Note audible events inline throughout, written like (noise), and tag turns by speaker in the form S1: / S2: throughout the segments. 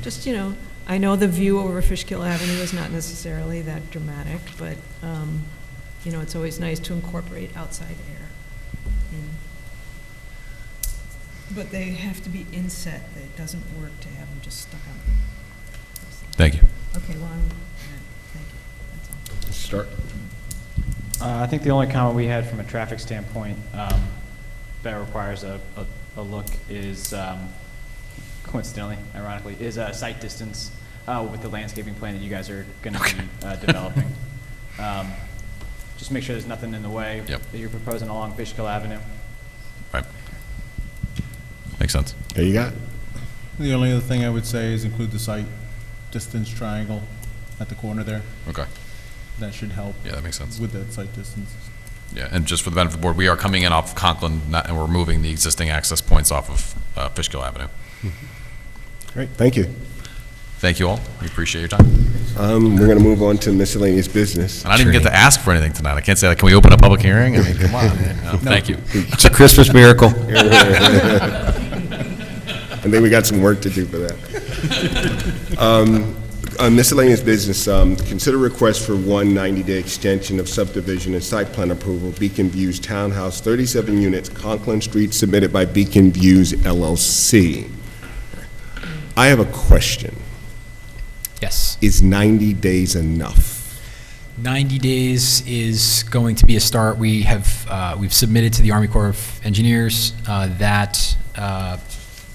S1: Just, you know, I know the view over Fishkill Avenue is not necessarily that dramatic, but, um, you know, it's always nice to incorporate outside air. in. But they have to be inset, it doesn't work to have them just stuck out.
S2: Thank you.
S1: Okay, well, I'm, thank you, that's all.
S3: Start.
S4: Uh, I think the only comment we had from a traffic standpoint um, that requires a, a, a look is, um, coincidentally, ironically, is uh, sight distance uh, with the landscaping plan that you guys are going to be uh, developing. (laughs) Um, Just make sure there's nothing in the way
S2: Yep.
S4: that you're proposing along Fishkill Avenue.
S2: Right. Makes sense.
S3: There you got. it.
S5: The only other thing I would say is include the site distance triangle at the corner there.
S2: Okay.
S5: That should help
S2: Yeah, that makes sense.
S5: with that site distance.
S2: Yeah, and just for the benefit of the board, we are coming in off Conklin, not- and we're moving the existing access points off of uh, Fishkill Avenue.
S3: Great, thank you.
S2: Thank you all. We appreciate your time. And
S3: Um, We're going to move on to miscellaneous business.
S2: I didn't even get to ask for anything tonight. I can't say, like, can we open a public hearing? I mean, come on. Uh, (laughs) Thank you.
S6: It's a
S3: (laughs)
S6: Christmas miracle.
S3: I think we got some work to do for that. Um, on Miscellaneous business, um, consider request for one 90-day extension of subdivision and site plan approval, Beacon Views Townhouse, 37 units, Conklin Street, submitted by Beacon Views LLC. I have a question.
S7: Yes.
S3: Is 90 days enough?
S7: 90 days is going to be a start. We have, uh, we've submitted to the Army Corps of Engineers. Uh, That uh,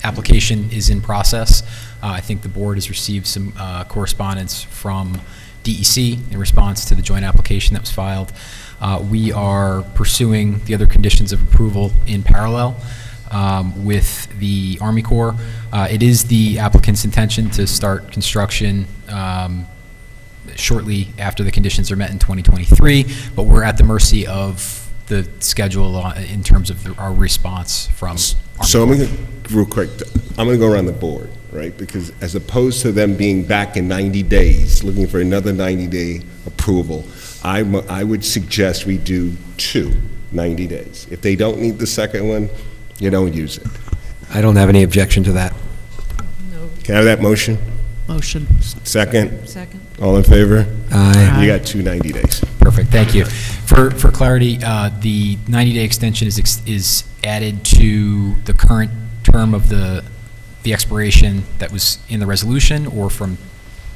S7: application is in process. Uh, I think the board has received some uh, correspondence from DEC in response to the joint application that was filed. Uh, We are pursuing the other conditions of approval in parallel um, with the Army Corps. Uh, It is the applicant's intention to start construction um, shortly after the conditions are met in 2023, but we're at the mercy of the schedule on- in terms of the- our response from. Army
S3: So I'm
S7: Corps.
S3: going to, real quick, I'm going to go around the board, right? Because as opposed to them being back in 90 days, looking for another 90-day approval, I, mu- I would suggest we do two 90 days. If they don't need the second one, you don't use it.
S6: I don't have any objection to that.
S1: No,
S3: Can I have that motion?
S8: Motion.
S3: Second?
S1: second?
S3: All in favor?
S6: Aye.
S3: You got two 90 days.
S7: Perfect, thank you. For, for clarity, uh, the 90-day extension is, ex- is added to the current term of the, the expiration that was in the resolution or from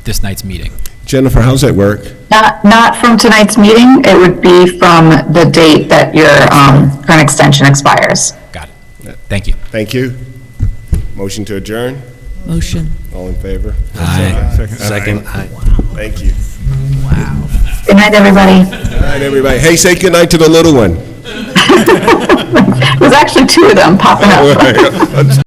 S7: this night's meeting?
S3: Jennifer, how's that work?
S9: Not, not from tonight's meeting, it would be from the date that your um, current extension expires.
S7: Got it. Thank you.
S3: Thank you. Motion to adjourn?
S8: Motion.
S3: All in favor?
S6: Aye. Second. Aye.
S3: Thank you.
S9: Good night, everybody.
S3: All right, everybody. Hey, say goodnight to the little one. (laughs)
S9: There's actually two of them popping up.
S3: All right.